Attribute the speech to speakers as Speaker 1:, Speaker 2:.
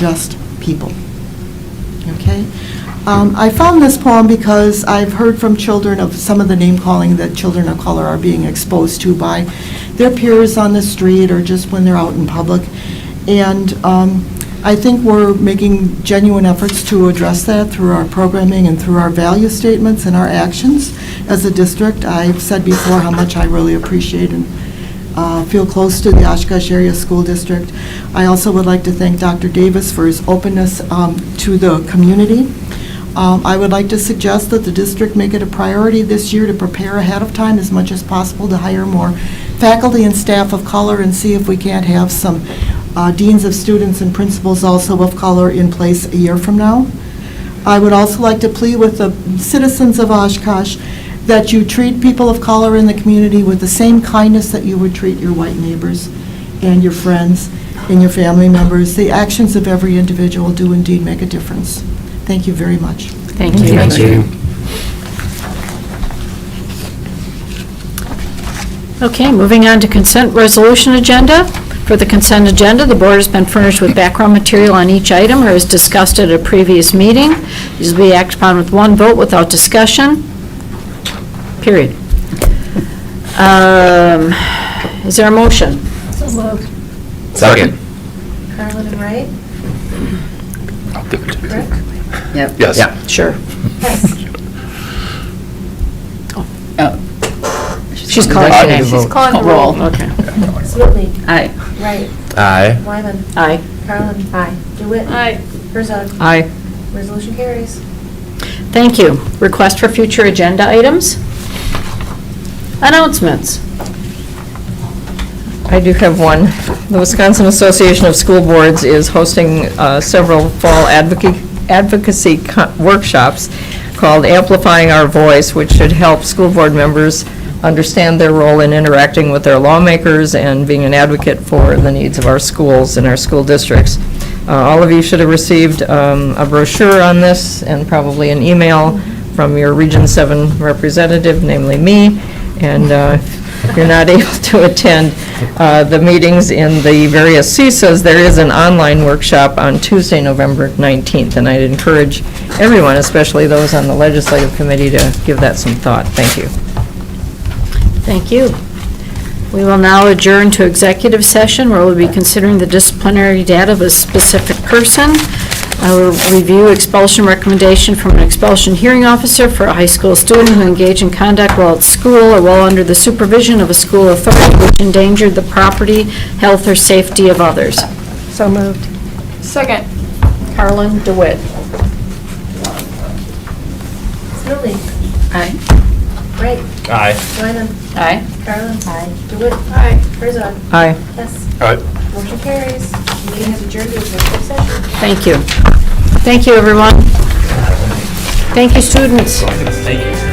Speaker 1: just people. Okay? Um, I found this poem because I've heard from children of some of the name-calling that children of color are being exposed to by their peers on the street or just when they're out in public. And um, I think we're making genuine efforts to address that through our programming and through our value statements and our actions as a district. I've said before how much I really appreciate and uh, feel close to the Oshkosh Area School District. I also would like to thank Dr. Davis for his openness um, to the community. Um, I would like to suggest that the district make it a priority this year to prepare ahead of time as much as possible to hire more faculty and staff of color and see if we can't have some uh, deans of students and principals also of color in place a year from now. I would also like to plead with the citizens of Oshkosh that you treat people of color in the community with the same kindness that you would treat your white neighbors and your friends and your family members. The actions of every individual do indeed make a difference. Thank you very much.
Speaker 2: Thank you.
Speaker 3: Thank you.
Speaker 2: Okay, moving on to consent resolution agenda. For the consent agenda, the board has been furnished with background material on each item or as discussed at a previous meeting. These will be acted upon with one vote without discussion, period. Um, Is there a motion?
Speaker 4: So moved.
Speaker 3: Second.
Speaker 4: Carlin and Wright?
Speaker 3: I'll give it to
Speaker 4: Rick?
Speaker 5: Yep.
Speaker 3: Yes.
Speaker 2: Sure.
Speaker 4: Hess.
Speaker 2: She's calling
Speaker 5: I'd like
Speaker 2: your name.
Speaker 5: to vote.
Speaker 4: She's calling the
Speaker 2: Roll,
Speaker 4: roll.
Speaker 2: okay.
Speaker 4: Sweetly.
Speaker 5: Aye.
Speaker 4: Wright.
Speaker 3: Aye.
Speaker 4: Wyman.
Speaker 2: Aye.
Speaker 4: Carlin. Aye. DeWitt.
Speaker 6: Aye.
Speaker 4: Herzog.
Speaker 5: Aye.
Speaker 4: Resolution carries.
Speaker 2: Thank you. Request for future agenda items? Announcements?
Speaker 6: I do have one. The Wisconsin Association of School Boards is hosting uh, several fall advoca- advocacy co- workshops called Amplifying Our Voice, which should help school board members understand their role in interacting with their lawmakers and being an advocate for the needs of our schools and our school districts. Uh, All of you should have received um, a brochure on this and probably an email from your Region 7 representative, namely me, and uh, if you're not able to attend uh, the meetings in the various CISAs, there is an online workshop on Tuesday, November 19th, and I'd encourage everyone, especially those on the legislative committee, to give that some thought. Thank you.
Speaker 2: Thank you. We will now adjourn to executive session where we'll be considering the disciplinary data of a specific person. I will review expulsion recommendation from an expulsion hearing officer for a high school student who engaged in conduct while at school or while under the supervision of a school authority which endangered the property, health, or safety of others.
Speaker 6: So moved. Second.
Speaker 2: Carlin DeWitt.
Speaker 4: Sweetly.
Speaker 2: Aye.
Speaker 4: Wright.
Speaker 3: Aye.
Speaker 4: Wyman.
Speaker 2: Aye.
Speaker 4: Carlin. Aye. DeWitt. Aye. Herzog.
Speaker 6: Aye.
Speaker 4: Hess.
Speaker 3: Aye.
Speaker 4: Motion carries. Meeting has adjourned to executive session.
Speaker 2: Thank you. Thank you, everyone. Thank you, students.
Speaker 3: Thank you.